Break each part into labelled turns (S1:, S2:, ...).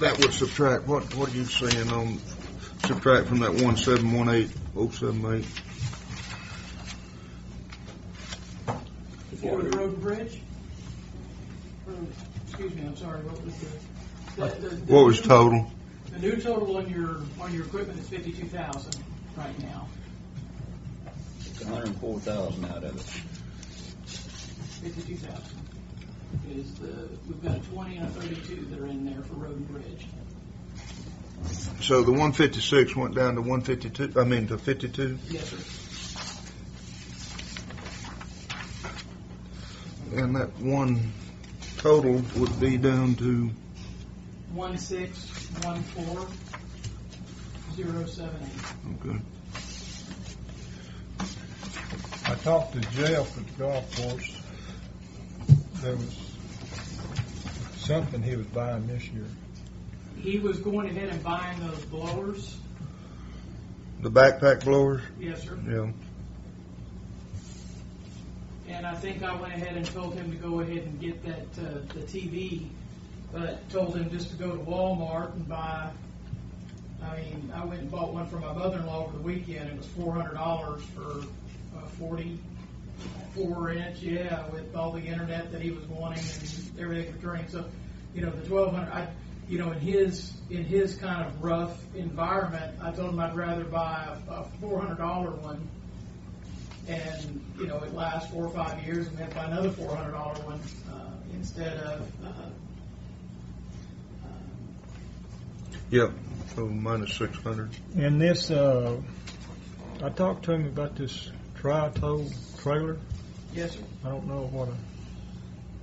S1: That would subtract, what, what are you saying on, subtract from that one seven one eight oh seven eight?
S2: For the road and bridge? Or, excuse me, I'm sorry, what was the? the- the-
S1: What was total?
S2: The new total on your, on your equipment is fifty-two thousand right now.
S3: It's hundred and four thousand out of it.
S2: Fifty-two thousand is the, we've got a twenty and a thirty-two that are in there for road and bridge.
S1: So the one fifty-six went down to one fifty-two, I mean to fifty-two?
S2: Yes, sir.
S1: And that one total would be down to,
S2: One six, one four, zero seven eight.
S1: okay.
S4: I talked to Jeff at the golf course. There was something he was buying this year.
S2: He was going ahead and buying those blowers.
S1: The backpack blowers?
S2: Yes, sir.
S1: Yeah.
S2: And I think I went ahead and told him to go ahead and get that, uh, the TV, but told him just to go to Walmart and buy, I mean, I went and bought one for my mother-in-law over the weekend, it was four hundred dollars for a forty-four inch, yeah, with all the internet that he was wanting and everything for turning, so, you know, the twelve hundred, I, you know, in his, in his kind of rough environment, I told him I'd rather buy a, a four hundred dollar one and, you know, it lasts four or five years, and then buy another four hundred dollar one, uh, instead of, uh, uh,
S1: Yep, so minus six hundred.
S4: And this, uh, I talked to him about this tri-tow trailer.
S2: yes, sir.
S4: I don't know what I,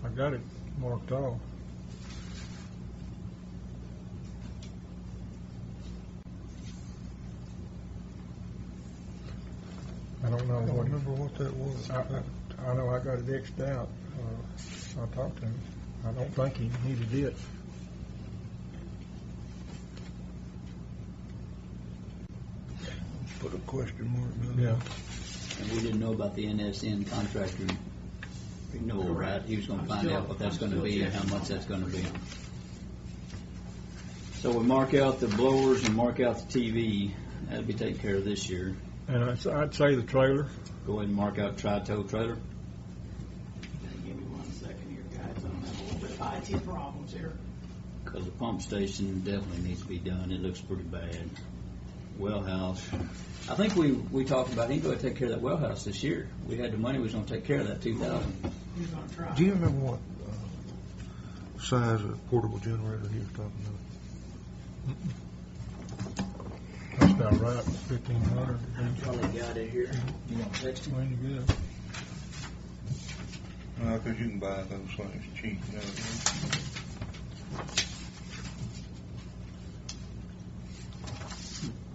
S4: I got it marked off. I don't know
S1: I don't
S4: what, he-
S1: remember what that was.
S4: I, I, I know I got it Xed out. Uh, I talked to him. I don't think he needed it.
S1: Put a question mark down.
S4: Yeah.
S3: And we didn't know about the NSN contractor renewal, right? He was gonna find out what that's gonna be and how much that's gonna be. So we mark out the blowers and mark out the TV. That'll be taken care of this year.
S4: And I'd, I'd say the trailer.
S3: Go ahead and mark out tri-tow trailer.
S2: Give me one second here, guys, I'm having a little bit of IT problems here.
S3: Because the pump station definitely needs to be done, it looks pretty bad. Well house, I think we, we talked about, he go ahead and take care of that well house this year. We had the money, we was gonna take care of that two thousand.
S2: He's gonna try.
S1: Do you remember what, uh, size of portable generator he was talking about?
S4: That's about right. Fifteen hundred.
S3: Probably got it here. You want text him?
S1: Uh, cause you can buy those things cheap nowadays.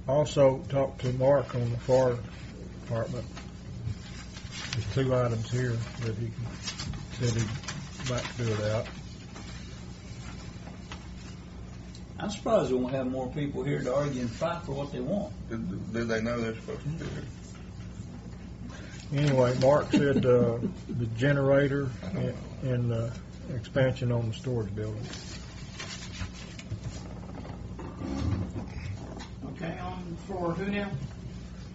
S4: Also talked to Mark on the fire department. There's two items here that he said he might do it out.
S3: I'm surprised we won't have more people here to argue and fight for what they want.
S1: Did, did they know they're supposed to do it?
S4: Anyway, Mark said, uh, the generator and- and, uh, expansion on the storage building.
S2: Okay, on, for who now?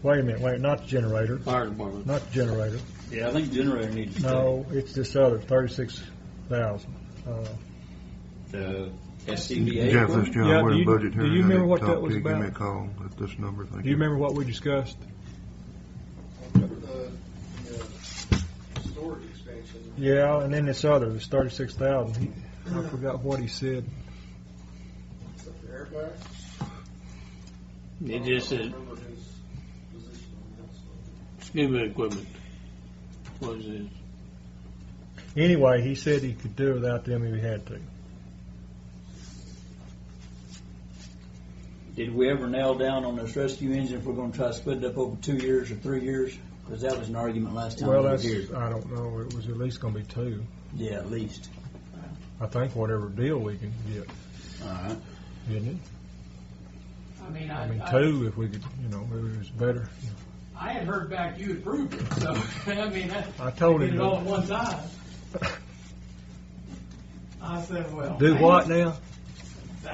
S4: Wait a minute, wait, not the generator,
S3: Fire department.
S4: not the generator.
S3: Yeah, I think generator needs to stay.
S4: No, it's this other, thirty-six thousand. Uh,
S3: The SCBA.
S1: Jeff,
S3: equipment?
S1: that's John.
S4: Yeah,
S1: We're
S4: do
S1: in
S4: you-
S1: budget here.
S4: do you
S1: I need
S4: remember
S1: to
S4: what
S1: talk
S4: that
S1: to
S4: was
S1: you. Give me a
S4: about?
S1: call at this number. Thank
S4: Do you remember what we discussed?
S5: storage expansion.
S4: Yeah, and then this other, this thirty-six thousand. I forgot what he said.
S5: Except for airbags.
S6: It just
S5: I don't
S6: said
S5: remember his position on that, so.
S6: scuba equipment. What is it?
S4: Anyway, he said he could do without them if he had to.
S3: Did we ever nail down on this rescue engine if we're gonna try to split it up over two years or three years? Because that was an argument last time we
S4: Well,
S3: were
S4: that's,
S3: here.
S4: I don't know, it was at least gonna be two.
S3: Yeah, at least.
S4: I think whatever deal we can get,
S3: All right.
S4: isn't it?
S2: I mean, I,
S4: I mean,
S2: I,
S4: two if we could, you know, maybe it was better.
S2: I had heard back you approved it, so, I mean, that,
S4: I told
S2: did
S4: him
S2: it all at
S4: to
S2: one time. I said, well.
S4: do
S2: I
S4: what
S2: just-
S4: now?